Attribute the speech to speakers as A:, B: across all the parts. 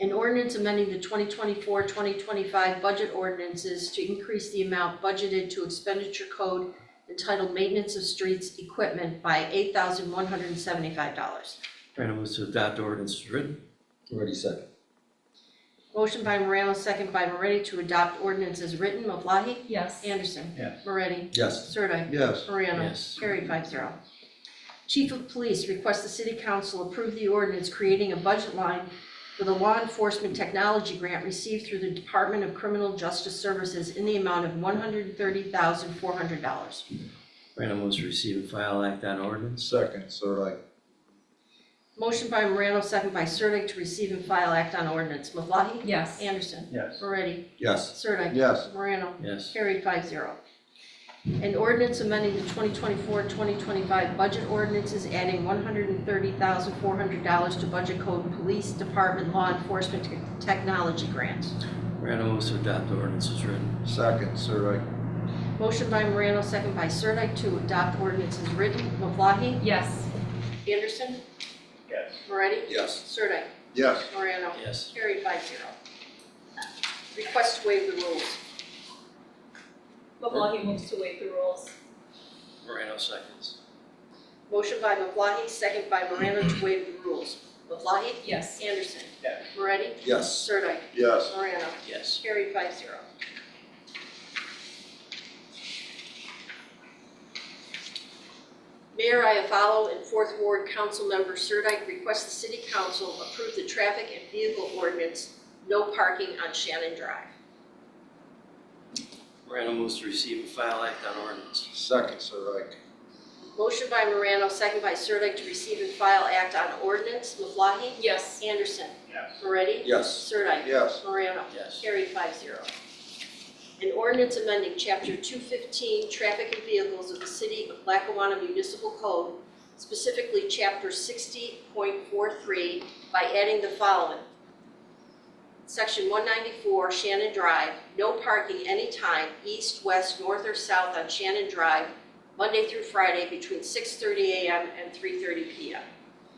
A: An ordinance amending the 2024, 2025 budget ordinances to increase the amount budgeted to expenditure code entitled Maintenance of Streets Equipment by $8,175.
B: Random moves to adopt ordinance as written.
C: Moretti second.
A: Motion by Morano, second by Moretti to adopt ordinance as written. Maflahe?
D: yes,
A: Anderson.
E: Yes.
A: Moretti.
C: Yes.
A: Sirdike.
E: yes,
A: Morano.
B: Yes.
A: Carried five zero. Chief of Police requests the city council approve the ordinance creating a budget line for the law enforcement technology grant received through the Department of Criminal Justice Services in the amount of one hundred thirty thousand four hundred dollars.
B: Random moves to receive and file act on ordinance.
E: second, Sirdike,
A: Motion by Morano, second by Sirdike, to receive and file act on ordinance. Maflahe?
D: yes,
A: Anderson.
E: Yes.
A: Moretti?
C: Yes.
A: Sirdike.
E: yes,
A: Morano.
B: Yes.
A: Carried five zero. An ordinance amending the 2024-2025 budget ordinances adding $130,400 to budget code Police Department Law Enforcement Tech- Technology Grant.
B: Random moves to adopt ordinance as written.
E: second, Sirdike,
A: Motion by Morano, second by Sirdike, to adopt ordinances written. Maflahe?
D: yes,
A: Anderson?
E: Yes.
A: Moretti?
C: Yes.
A: Sirdike?
E: yes,
A: Morano?
B: Yes.
A: Carried five zero. Request to waive the rules.
D: Maflahe moves to waive the rules,
B: Morano seconds.
A: Motion by Maflahe, second by Morano, to waive the rules. Maflahe?
D: yes,
A: Anderson.
E: Yes.
A: Moretti.
C: Yes.
A: Sirdike.
E: yes,
A: Morano.
B: Yes.
A: Carried five zero. Mayor Iafallo and Fourth Ward Councilmember Sirdike request the City Council approve the traffic and vehicle ordinance, no parking on Shannon Drive.
B: Random moves to receive and file act on ordinance.
E: second, Sirdike,
A: Motion by Morano, second by Sirdike, to receive and file act on ordinance. Maflahe?
D: yes,
A: Anderson.
E: Yes.
A: Moretti?
C: Yes.
A: Sirdike.
E: Yes.
A: Morano.
B: Yes.
A: Carried five zero. An ordinance amending chapter two fifteen, traffic and vehicles of the city of Lackawanna Municipal Code, specifically chapter sixty point four three, by adding the following. Section one ninety-four Shannon Drive, no parking anytime, east, west, north, or south on Shannon Drive, Monday through Friday between six thirty AM and three thirty PM.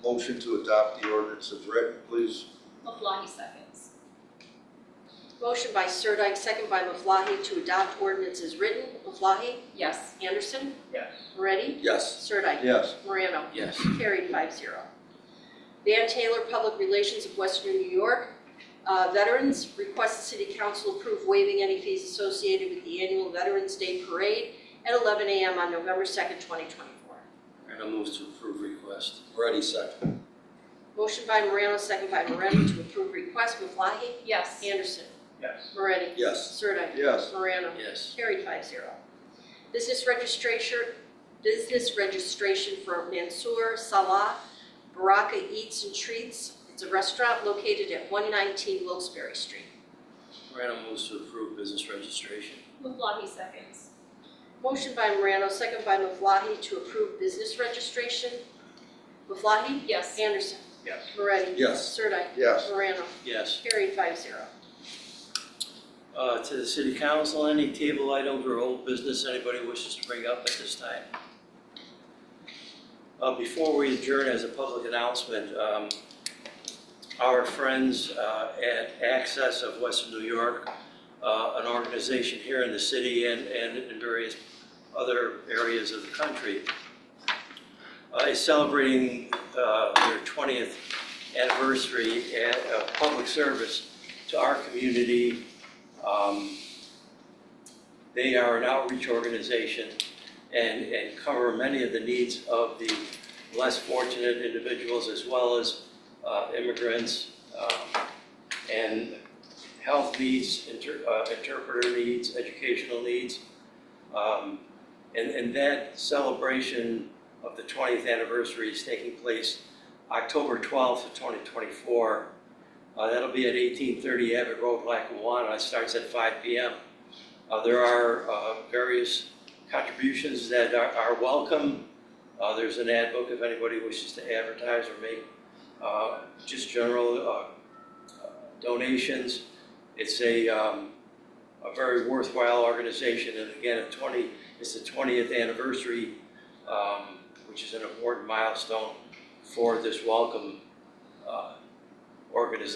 E: motion to adopt the ordinance as written, please.
D: Maflahe seconds,
A: Motion by Sirdike, second by Maflahe, to adopt ordinance as written. Maflahe?
D: yes,
A: Anderson?
E: Yes.
A: Moretti?
C: Yes.
A: Sirdike?
E: Yes,
A: Morano?
B: Yes.
A: Carried five zero. Van Taylor, Public Relations of Western New York. Uh, Veterans, request the City Council approve waiving any fees associated with the annual Veterans Day Parade at eleven AM on November second, twenty twenty-four.
B: Random moves to approve request.
C: Moretti second.
A: Motion by Morano, second by Moretti to approve request. Maflahe?
D: yes,
A: Anderson?
E: Yes.
A: Moretti?
C: Yes.
A: Sirdike?
E: yes,
A: Morano?
B: Yes.
A: Carried five zero. Business registration, business registration for Mansour Salah Baraka Eats and Treats. It's a restaurant located at one nineteen Wilkes-Barre Street.
B: Random moves to approve business registration.
D: Maflahe seconds,
A: Motion by Morano, second by Maflahe to approve business registration. Maflahe?
D: yes,
A: Anderson?
E: Yes.
A: Moretti?
C: Yes.
A: Sirdike?
E: yes,
A: Morano?
B: Yes.
A: Carried five zero.
B: Uh, to the city council, any table items or old business anybody wishes to bring up at this time? Uh, before we adjourn as a public announcement, um, our friends, uh, at Access of Western New York, uh, an organization here in the city and, and in various other areas of the country, uh, is celebrating, uh, their twentieth anniversary and, uh, public service to our community, um, They are an outreach organization and, and cover many of the needs of the less fortunate individuals as well as uh, immigrants um, and health needs, inter- uh, interpreter needs, educational needs. Um, And, and that celebration of the 20th anniversary is taking place October 12th of 2024 uh, That'll be at 1830 Abbott Road, Lackawanna. It starts at 5 PM. Uh, There are uh, various contributions that are- are welcome. Uh, There's an ad book if anybody wishes to advertise or make uh, just general uh, uh, donations. It's a um, a very worthwhile organization, and again, a 20, it's the 20th anniversary, um, which is an important milestone for this welcome uh, organization